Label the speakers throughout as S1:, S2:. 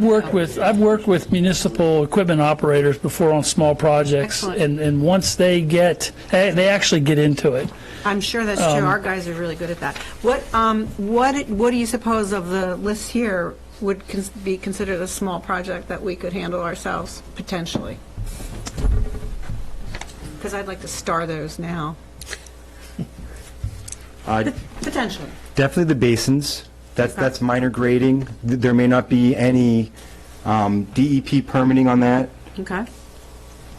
S1: worked with, I've worked with municipal equipment operators before on small projects.
S2: Excellent.
S1: And, and once they get, eh, they actually get into it.
S2: I'm sure that's true. Our guys are really good at that. What, um, what, what do you suppose of the list here would cons- be considered a small project that we could handle ourselves, potentially? Because I'd like to star those now,
S3: Uh,
S2: potentially.
S3: Definitely the basins. That's, that's minor grading. Th- There may not be any um, DEP permitting on that.
S2: Okay.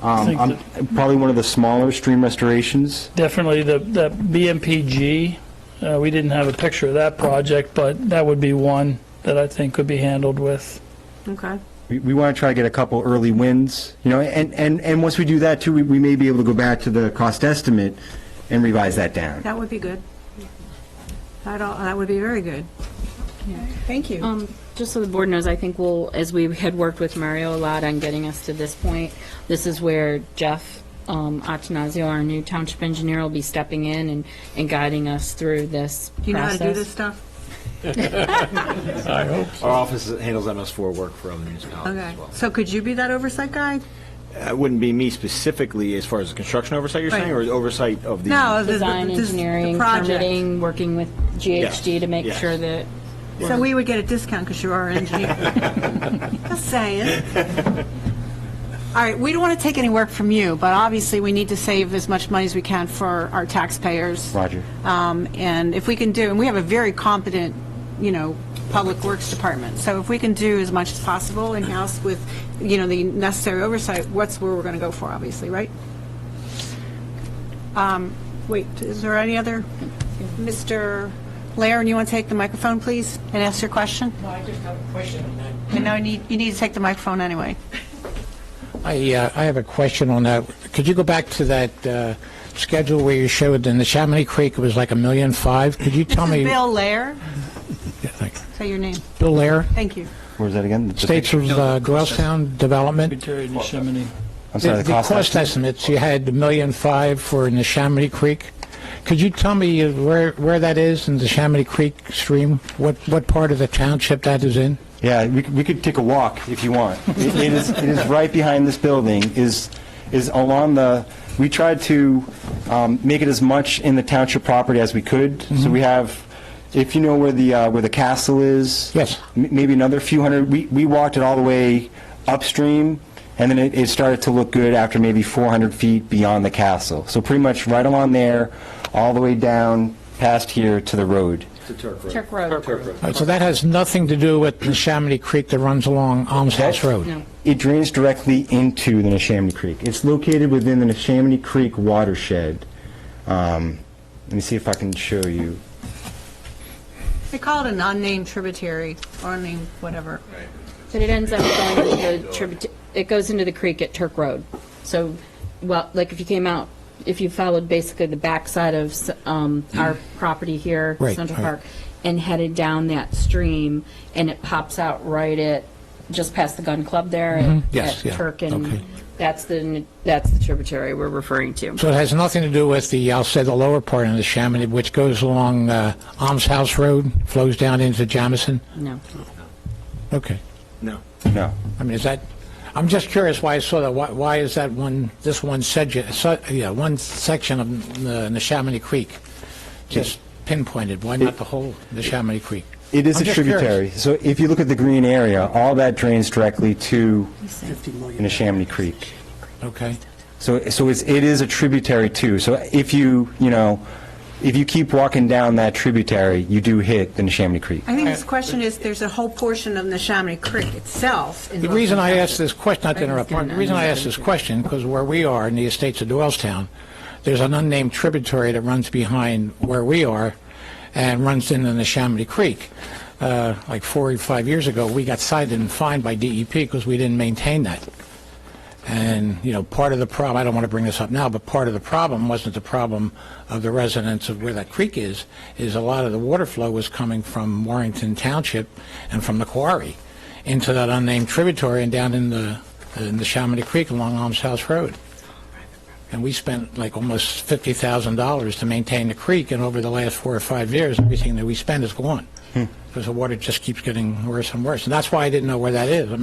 S3: Um,
S1: think
S3: I'm- Probably one of the smaller stream restorations.
S1: Definitely the, the BMPG, uh, we didn't have a picture of that project, but that would be one that I think could be handled with.
S2: Okay.
S3: We, we want to try to get a couple early wins, you know, and, and, and once we do that too, we, we may be able to go back to the cost estimate and revise that down.
S2: That would be good. That all, that would be very good. Yeah. Thank you.
S4: Um, Just so the board knows, I think we'll, as we had worked with Mario a lot on getting us to this point, this is where Jeff um, Attanasio, our new township engineer, will be stepping in and, and guiding us through this process.
S2: Do you know how to do this stuff?
S5: Our office handles MS4 work for other municipalities
S2: Okay.
S5: as well.
S2: So could you be that oversight guy?
S5: It wouldn't be me specifically as far as the construction oversight you're saying, or
S2: Right.
S5: the oversight of the...
S2: No. the- the-
S4: Design,
S2: this- the
S4: engineering,
S2: project.
S4: permitting, working with GHD to make
S5: Yes.
S4: sure that,
S2: So we would get a discount because you're our engineer. Just saying. All right, we don't want to take any work from you, but obviously, we need to save as much money as we can for our taxpayers.
S3: Roger.
S2: Um, And if we can do, and we have a very competent, you know, Public Works Department, so if we can do as much as possible in-house with, you know, the necessary oversight, what's where we're going to go for, obviously, right? Um, Wait, is there any other? Mr. Laren, you want to take the microphone, please, and ask your question?
S6: No, I just have a question on that.
S2: And now you need, you need to take the microphone anyway.
S6: I, uh, I have a question on that. Could you go back to that uh, schedule where you showed in the Chamonix Creek, it was like a million five? Could you tell
S2: This
S6: me?
S2: is Bill Lair.
S6: Yeah, thank you.
S2: Say your name.
S6: Bill Lair,
S2: Thank you.
S3: Where's that again? The-
S6: States of uh, Doylestown Development.
S1: Terry and Yosemite.
S3: I'm sorry,
S6: The
S3: the cost estimate.
S6: estimates, you had a million five for in the Chamonix Creek. Could you tell me uh, where, where that is in the Chamonix Creek stream? What, what part of the township that is in?
S3: Yeah, we, could- we could take a walk if you want. It it is, it is right behind this building, is, is along the, we tried to um, make it as much in the township property as we could. So we have, if you know where the, uh, where the castle is.
S6: Yes.
S3: m- Maybe another few hundred, we, we walked it all the way upstream, and then it, it started to look good after maybe 400 feet beyond the castle. So pretty much right along there, all the way down past here to the road.
S5: It's a Turk road.
S4: Turk Road.
S5: Turk road.
S6: Uh, So that has nothing to do with the Chamonix Creek that runs along Alms House Road?
S3: It drains directly into the Neshaminy Creek. It's located within the Neshaminy Creek watershed. Um, Let me see if I can show you.
S2: They call it an unnamed tributary, or unnamed whatever.
S4: But it ends up going into the tribut, it goes into the creek at Turk Road. So, well, like if you came out, if you followed basically the backside of s- um, our property here,
S6: Right,
S4: Central
S6: right.
S4: Park, and headed down that stream, and it pops out right at, just past the gun club there at-
S6: Mm-hmm. Yes,
S4: at
S6: yeah,
S4: Turk,
S6: okay.
S4: and that's the, that's the tributary we're referring to.
S6: So it has nothing to do with the, I'll say, the lower part of the Chamonix, which goes along uh, Alms House Road, flows down into Jamison?
S4: No.
S6: Okay.
S5: No.
S3: No.
S6: I mean, is that, I'm just curious why I saw that, why, why is that one, this one section, so- yeah, one section of the the Chamonix Creek just pinpointed? Why not the whole, the Chamonix Creek?
S3: It is
S6: I'm
S3: a
S6: just curious.
S3: tributary. So if you look at the green area, all that drains directly to the Neshaminy Creek.
S6: Okay.
S3: So, so it's, it is a tributary too. So if you, you know, if you keep walking down that tributary, you do hit the Neshaminy Creek.
S2: I think this question is, there's a whole portion of the Chamonix Creek itself. in
S6: The
S2: Northern
S6: reason I
S2: Kentucky.
S6: asked this question, not to interrupt, Mark, the reason I asked this question, because where we are in the estates of Doylestown, there's an unnamed tributary that runs behind where we are and runs into the Chamonix Creek. Uh, Like four or five years ago, we got cited and fined by DEP because we didn't maintain that. And, you know, part of the problem, I don't want to bring this up now, but part of the problem wasn't the problem of the residents of where that creek is, is a lot of the water flow was coming from Warrington Township and from the quarry into that unnamed tributary and down in the, in the Chaminade Creek along Alms House Road. And we spent like almost $50,000 to maintain the creek, and over the last four or five years, everything that we spend is gone. Because the water just keeps getting worse and worse. And that's why I didn't know where that is. I